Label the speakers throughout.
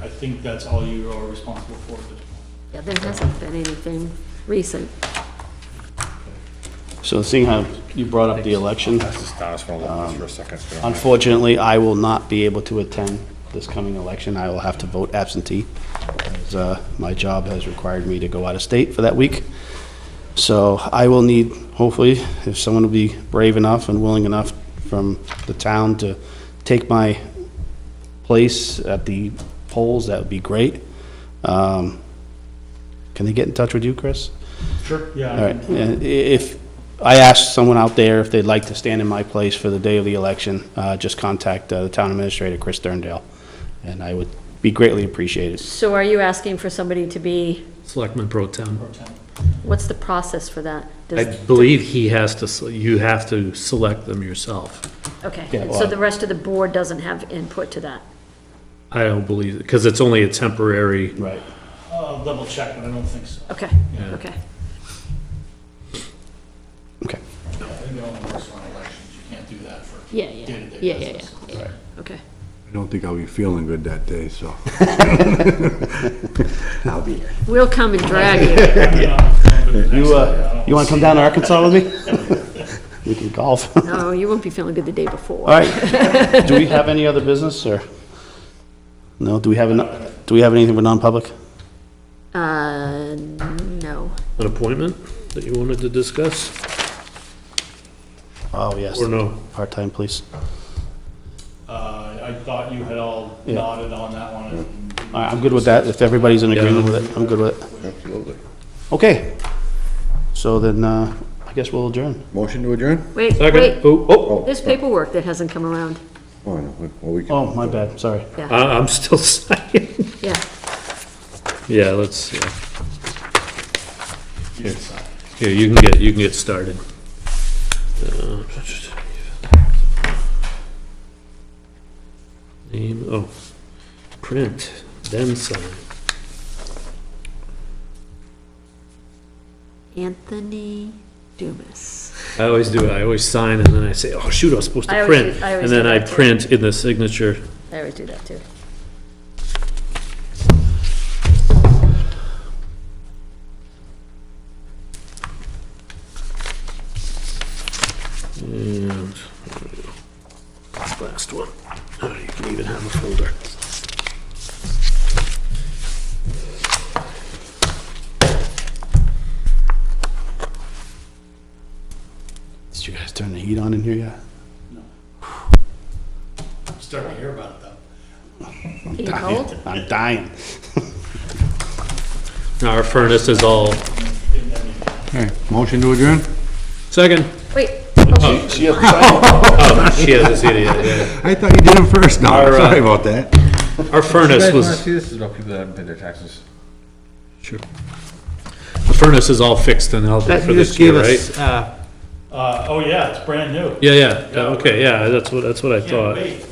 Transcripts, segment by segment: Speaker 1: I think that's all you are responsible for.
Speaker 2: Yeah, there hasn't been anything recent.
Speaker 3: So seeing how you brought up the election,
Speaker 4: That's just, I just wanna look at this for a second. so we don't have-
Speaker 3: unfortunately, I will not be able to attend this coming election. I will have to vote absentee, as uh, my job has required me to go out of state for that week. So I will need, hopefully, if someone will be brave enough and willing enough from the town to take my place at the polls, that would be great. Um, Can they get in touch with you, Chris?
Speaker 1: Sure. Yeah. I
Speaker 3: All
Speaker 1: can-
Speaker 3: right, yeah, i- if, I asked someone out there if they'd like to stand in my place for the day of the election, uh, just contact uh, the town administrator, Chris Sterndale, and I would be greatly appreciated.
Speaker 2: So are you asking for somebody to be,
Speaker 5: Selectman Pro Tem.
Speaker 1: pro temp.
Speaker 2: what's the process for that?
Speaker 5: I
Speaker 2: Does-
Speaker 5: believe he has to, se- you have to select them yourself.
Speaker 2: Okay,
Speaker 3: Yeah,
Speaker 2: so
Speaker 3: well-
Speaker 2: the rest of the board doesn't have input to that?
Speaker 5: I don't believe, because it's only a temporary,
Speaker 3: Right.
Speaker 1: I'll double check, but I don't think so.
Speaker 2: Okay,
Speaker 5: Yeah.
Speaker 2: okay.
Speaker 3: Okay.
Speaker 1: I think it only works on elections. You can't do that for
Speaker 2: Yeah, yeah,
Speaker 1: day-to-day
Speaker 2: yeah, yeah,
Speaker 1: business.
Speaker 2: yeah, yeah, okay.
Speaker 6: I don't think I'll be feeling good that day, so. I'll be here.
Speaker 2: We'll come and drag you.
Speaker 3: You, uh, you want to come down to Arkansas with me? We can golf. All
Speaker 2: No, you won't be feeling good the day before.
Speaker 5: Uh,
Speaker 3: right. Do we have any other business, or? No, do we have, an- do we have anything for non-public?
Speaker 2: Uh, no.
Speaker 5: an appointment that you wanted to discuss,
Speaker 3: Oh, yes.
Speaker 5: or no?
Speaker 3: Part-time police.
Speaker 1: Uh, I thought you had all
Speaker 3: Yeah.
Speaker 1: nodded on that one. and-
Speaker 3: All right, I'm good with that, if everybody's in
Speaker 5: Yeah.
Speaker 3: agreement with it, I'm good with it.
Speaker 4: Absolutely.
Speaker 3: Okay, so then, uh, I guess we'll adjourn.
Speaker 4: Motion to adjourn?
Speaker 2: Wait,
Speaker 5: Second,
Speaker 2: wait,
Speaker 5: oh, oh,
Speaker 2: there's paperwork that hasn't come around.
Speaker 4: Oh, no, we- well, we can.
Speaker 3: Oh, my bad, sorry.
Speaker 2: Yeah,
Speaker 5: I, I'm still signing.
Speaker 2: yeah.
Speaker 5: Yeah, let's, yeah. Here. Here, you can get, you can get started. Uh, Name, oh, print, then sign.
Speaker 2: Anthony Dumas.
Speaker 5: I always do it, I always sign and then I say, oh shoot, I was supposed
Speaker 2: I
Speaker 5: to
Speaker 2: always
Speaker 5: print.
Speaker 2: do- I always
Speaker 5: And
Speaker 2: do
Speaker 5: then I
Speaker 2: that too.
Speaker 5: print in the signature.
Speaker 2: I always do that too.
Speaker 5: And last one. Oh, you can even have a folder.
Speaker 3: Did you guys turn the heat on in here yet?
Speaker 1: I'm starting to hear about it though.
Speaker 2: Are you cold?
Speaker 3: I'm dying.
Speaker 5: Now Our furnace is all,
Speaker 6: Hey, motion to adjourn?
Speaker 5: second.
Speaker 2: Wait,
Speaker 5: Oh, she has this idiot, yeah.
Speaker 6: I thought you did it first, no,
Speaker 5: Our, uh,
Speaker 6: sorry about that.
Speaker 5: Our furnace was.
Speaker 4: this is about people that haven't paid their taxes.
Speaker 5: Sure. The furnace is all fixed and healthy for this year, right?
Speaker 1: Uh, oh yeah, it's brand new.
Speaker 5: Yeah, yeah, yeah, okay, yeah, that's what, that's what I
Speaker 1: Can't
Speaker 3: uh,
Speaker 5: thought.
Speaker 1: wait.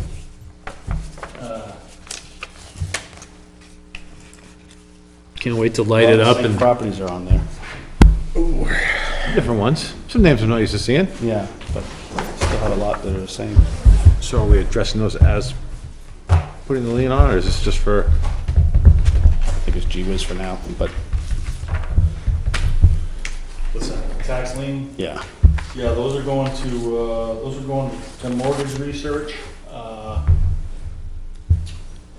Speaker 5: Can't wait to light it up
Speaker 3: Same
Speaker 5: and.
Speaker 3: Properties are on there,
Speaker 7: Different ones. Some names I'm not used to seeing.
Speaker 3: yeah, but still have a lot that are the same.
Speaker 7: So are we addressing those as putting the lien on, or is this just for?
Speaker 3: I think it's G whiz for now, but,
Speaker 1: What's that? Tax lien?
Speaker 3: yeah.
Speaker 1: Yeah, those are going to, uh, those are going to mortgage research. uh,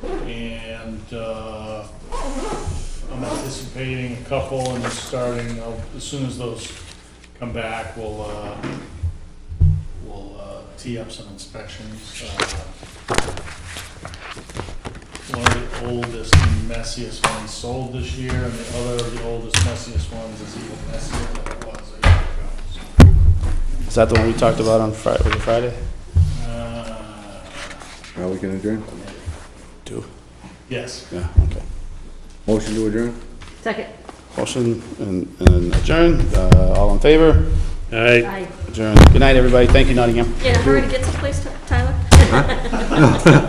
Speaker 1: And uh, I'm anticipating a couple and starting, uh, as soon as those come back, we'll, uh, we'll uh, tee up some inspections. uh, One of the oldest, messiest ones sold this year, and the other of the oldest, messiest ones is even messier than it was a year ago. so.
Speaker 3: Is that the one we talked about on Fri- was it Friday?
Speaker 1: Uh,
Speaker 4: Are we can adjourn?
Speaker 3: Two.
Speaker 1: Yes.
Speaker 3: Yeah, okay.
Speaker 4: Motion to adjourn?
Speaker 2: second.
Speaker 3: Motion and and adjourn, uh, all in favor,
Speaker 5: All right,
Speaker 2: I,
Speaker 3: adjourn. Good night, everybody, thank you, Nottingham.
Speaker 2: yeah, hurry to get someplace, Tyler.